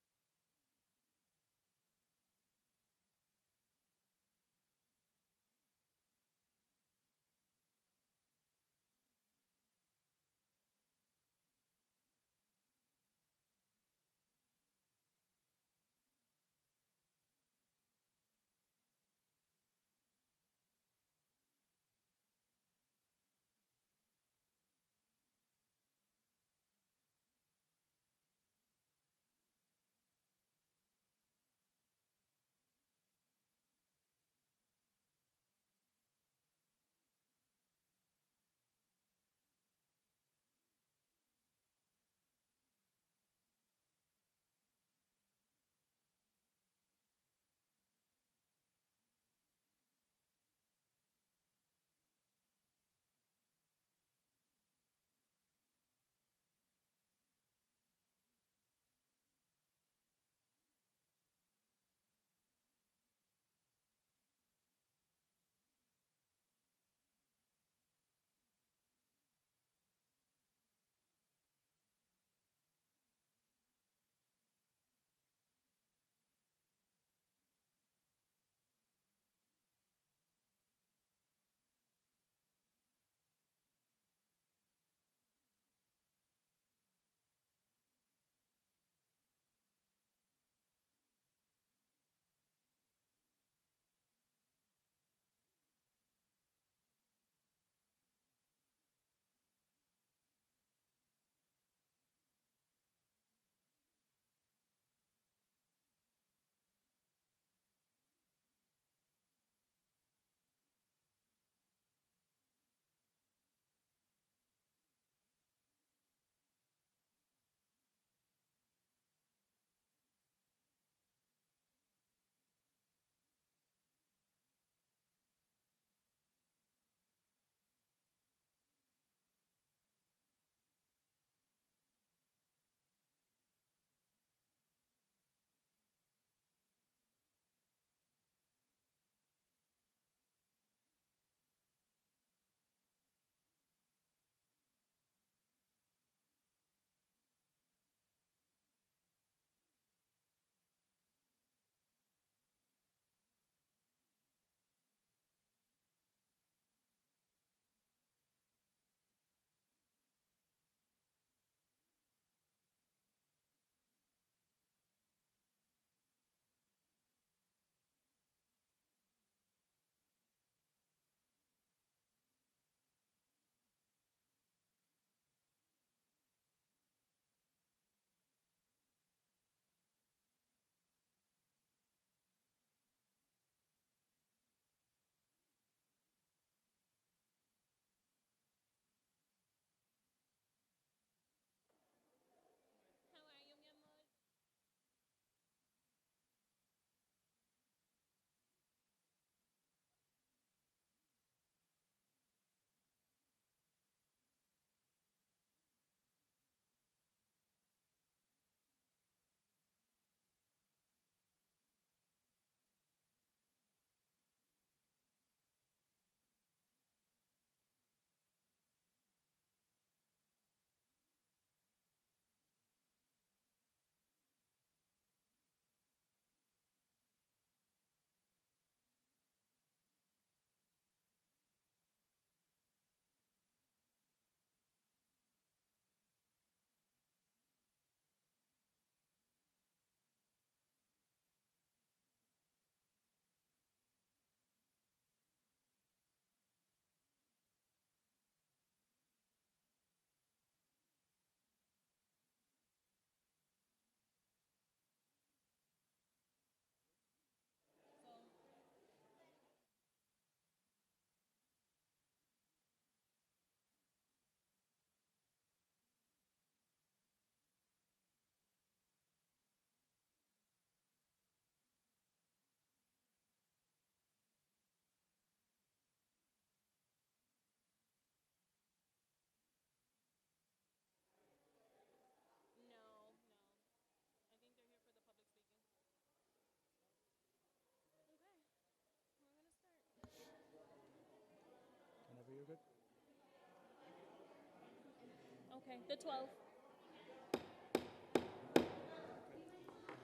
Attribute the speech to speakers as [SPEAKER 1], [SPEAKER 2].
[SPEAKER 1] you're good.
[SPEAKER 2] Okay, the 12th.